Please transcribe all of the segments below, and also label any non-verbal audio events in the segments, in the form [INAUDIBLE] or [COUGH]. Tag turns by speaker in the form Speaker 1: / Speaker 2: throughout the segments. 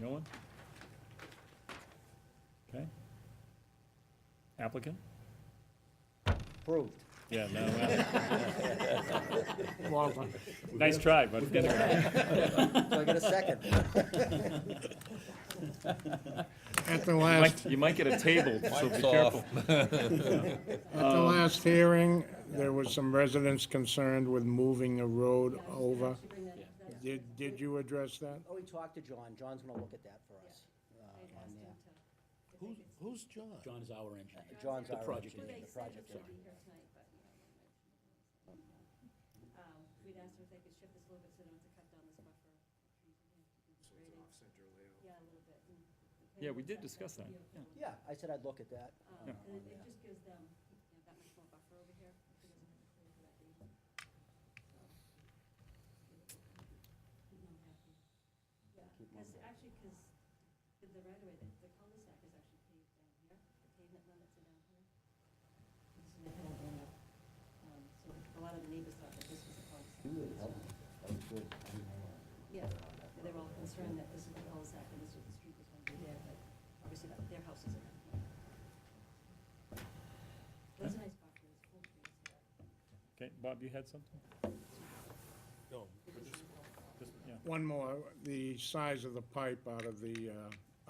Speaker 1: No one? Okay. Applicant?
Speaker 2: Approved.
Speaker 1: Yeah, no, well,
Speaker 3: [LAUGHS] Long time.
Speaker 1: nice try, but
Speaker 2: Do I get a [LAUGHS] second?
Speaker 3: At the
Speaker 1: You
Speaker 3: last,
Speaker 1: might- you might get a table, so be
Speaker 4: Mike's
Speaker 1: careful.
Speaker 4: off.
Speaker 3: at the last hearing, there was some residents concerned with moving a road over. Did, did you address that?
Speaker 2: Oh, we talked to John, John's gonna look at that for us. uh, on there.
Speaker 5: Who's, who's John?
Speaker 6: John is our engineer.
Speaker 2: John's
Speaker 6: The
Speaker 2: our
Speaker 6: project
Speaker 2: engineer,
Speaker 6: engineer.
Speaker 2: the project
Speaker 6: Sorry.
Speaker 2: engineer.
Speaker 7: Um, We'd asked if they could shift this a little bit so they don't have to cut down this buffer. Yeah, a little bit. Mm.
Speaker 1: Yeah, we did discuss that.
Speaker 2: Yeah, I said I'd look at that. uh,
Speaker 7: Um,
Speaker 2: on
Speaker 7: And it, it
Speaker 2: there.
Speaker 7: just gives them, you know, that much more buffer over here. if it doesn't have to clear for that deep. So, I'm happy. Yeah,
Speaker 2: Keep
Speaker 7: because, actually, because the right of way, the the cul-de-sac is actually paved down here, the pavement limits are down here. And so they don't end up, um, so a lot of the neighbors thought that this was a cul-de-sac. Yeah, they were all concerned that this is the cul-de-sac and this is the street that's going to be there, but obviously that, their house isn't. That's a nice buffer, it's full trees.
Speaker 1: Okay, Bob, you had something? Just- yeah.
Speaker 3: One more, the size of the pipe out of the uh,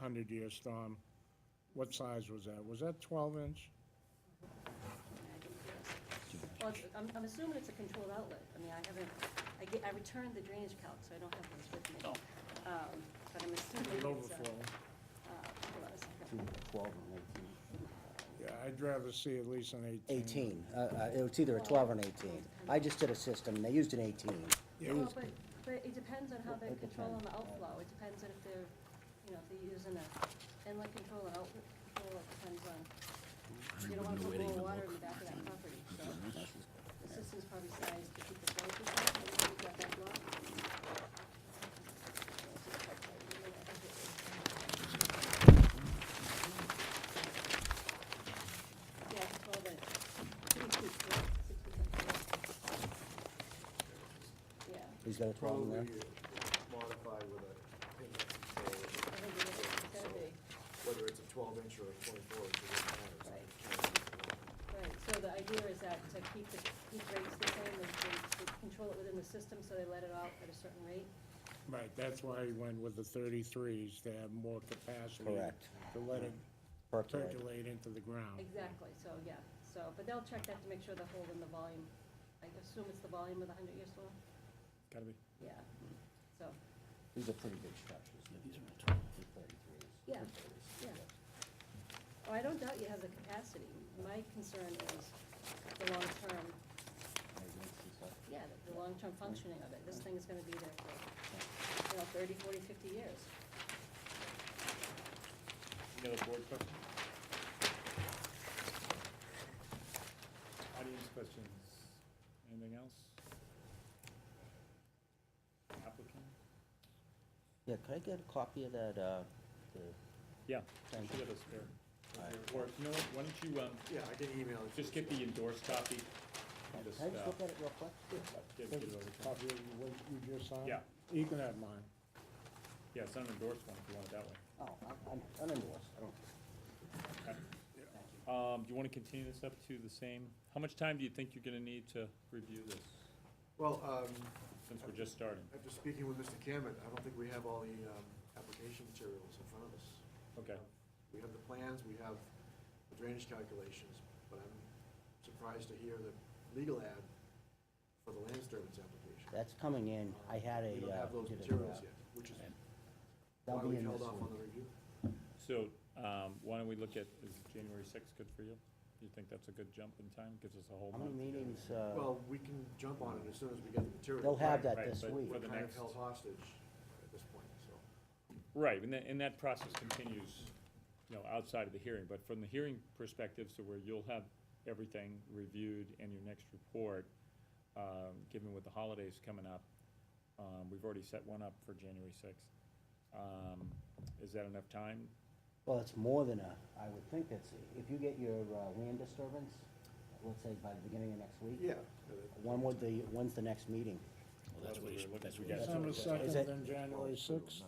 Speaker 3: hundred-year storm, what size was that? Was that twelve inch?
Speaker 7: Well, it's- I'm, I'm assuming it's a controlled outlet. I mean, I haven't, I get, I returned the drainage calc, so I don't have those with me. Um, but I'm assuming
Speaker 3: It
Speaker 7: it's a.
Speaker 3: overflow.
Speaker 7: Uh, hold on a second.
Speaker 2: Between Twelve and eighteen.
Speaker 3: Yeah, I'd rather see at least an
Speaker 2: Eighteen,
Speaker 3: eighteen.
Speaker 2: uh, uh, it was either a twelve or an eighteen. I just did a system, and they used an eighteen. They
Speaker 7: Well,
Speaker 2: used-
Speaker 7: but, but it depends on
Speaker 2: Well,
Speaker 7: how they're
Speaker 2: it
Speaker 7: controlling the
Speaker 2: depends, yeah.
Speaker 7: outflow, it depends on if they're, you know, if they're using a inlet control and outlet control, it depends on. You don't want to put more water in the back of that property, so the system's probably sized to keep the flow to that, and we've got that block. Yeah, it's all that, pretty cute, yeah, six percent. Yeah.
Speaker 2: He's got a twelve in there?
Speaker 8: modify with a, inlet
Speaker 7: I
Speaker 8: control,
Speaker 7: think it is, it's gotta be,
Speaker 8: whether it's a twelve inch or a twenty-four, it doesn't matter. so
Speaker 7: Right.
Speaker 8: it's-
Speaker 7: right, so the idea is that to keep the, keep rates the same, they, they, they control it within the system, so they let it out at a certain rate.
Speaker 3: Right, that's why he went with the thirty-threes, to have more capacity.
Speaker 2: Correct.
Speaker 3: To let it
Speaker 2: Percolate.
Speaker 3: percolate into the ground.
Speaker 7: Exactly, so, yeah, so, but they'll check that to make sure they're holding the volume, I assume it's the volume of the hundred year storm,
Speaker 1: Gotta be.
Speaker 7: yeah, so,
Speaker 2: These are pretty big structures. These are
Speaker 7: Yeah, yeah. oh, I don't doubt you have the capacity, my concern is the long term, yeah, the, the long term functioning of it, this thing is gonna be there for, you know, thirty, forty, fifty years.
Speaker 1: Any other board questions? Audience questions? Anything else? Applicant?
Speaker 2: Yeah, could I get a copy of that, uh, the,
Speaker 1: Yeah, I
Speaker 2: Thank
Speaker 1: should have a spare. Or, you know what, why don't you, um,
Speaker 8: Yeah, I can email it. to
Speaker 1: just
Speaker 8: you.
Speaker 1: get the endorsed copy? and Just,
Speaker 2: can I just
Speaker 1: uh,
Speaker 2: look at it real quick?
Speaker 1: get- get it over to him.
Speaker 3: Copy of what you just signed?
Speaker 1: Yeah.
Speaker 3: You can have mine.
Speaker 1: Yeah, it's not an endorsed one, if you want it that way.
Speaker 2: Oh, I'm- I'm, I'm endorsed, I don't.
Speaker 1: Um, do you wanna continue this up to the same, how much time do you think you're gonna need to review this,
Speaker 8: Well, um,
Speaker 1: since we're just starting?
Speaker 8: after speaking with Mr. Cameron, I don't think we have all the, um, application materials in front of us.
Speaker 1: Okay,
Speaker 8: We have the plans, we have the drainage calculations, but I'm surprised to hear the legal ad for the land disturbance application.
Speaker 2: That's coming in, I had a.
Speaker 8: We don't
Speaker 2: uh,
Speaker 8: have those
Speaker 2: did a, uh,
Speaker 8: materials yet, which is
Speaker 2: That'll
Speaker 8: why
Speaker 2: be
Speaker 8: we
Speaker 2: in
Speaker 8: held
Speaker 2: this
Speaker 8: off on
Speaker 2: one.
Speaker 8: the review.
Speaker 1: so, um, why don't we look at, is January sixth good for you? You think that's a good jump in time, gives us a whole
Speaker 2: How many
Speaker 1: month? to get it.
Speaker 2: meetings, uh,
Speaker 8: Well, we can jump on it as soon as we get the material.
Speaker 2: they'll have that
Speaker 1: Right,
Speaker 2: this
Speaker 1: but
Speaker 2: week.
Speaker 1: for
Speaker 8: We're
Speaker 1: the
Speaker 8: kind of
Speaker 1: next-
Speaker 8: held hostage at this point, so.
Speaker 1: Right, and that, and that process continues, you know, outside of the hearing, but from the hearing perspective, so where you'll have everything reviewed in your next report, um, given with the holidays coming up, um, we've already set one up for January sixth. Um, is that enough time?
Speaker 2: Well, it's more than a, I would think that's, if you get your uh, land disturbance, let's say by the beginning of next week.
Speaker 8: Yeah.
Speaker 2: When would the, when's the next meeting?
Speaker 6: Well, that's what he's, that's what he's.
Speaker 1: Yeah, so
Speaker 3: December
Speaker 2: Is
Speaker 3: second,
Speaker 2: it-
Speaker 3: then January sixth.